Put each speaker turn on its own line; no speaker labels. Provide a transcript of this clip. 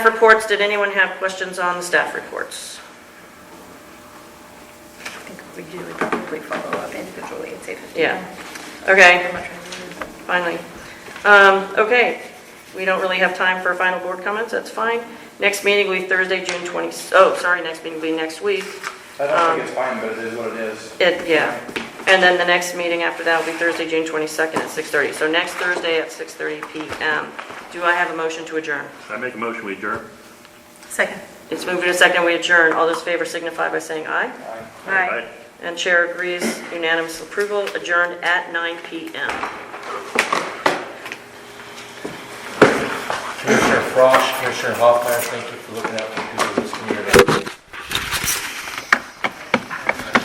reports, did anyone have questions on the staff reports?
I think we do, we probably follow up individually at say 15.
Yeah. Okay,
I'm not trying to-
finally. Um, Okay, we don't really have time for final board comments, that's fine. Next meeting will be Thursday, June 20, oh, sorry, next meeting will be next week.
I don't think it's fine, but it is what it is.
It, yeah. And then the next meeting after that will be Thursday, June 22nd at 6:30. So next Thursday at 6:30 PM. Do I have a motion to adjourn?
I make a motion, we adjourn.
Second.
It's moved to second, we adjourn. All those in favor signify by saying aye.
Aye.
Aye.
And chair agrees, unanimous approval, adjourned at 9 PM.
Commissioner Frosch, Commissioner Hoffmeyer, thank you for looking out for people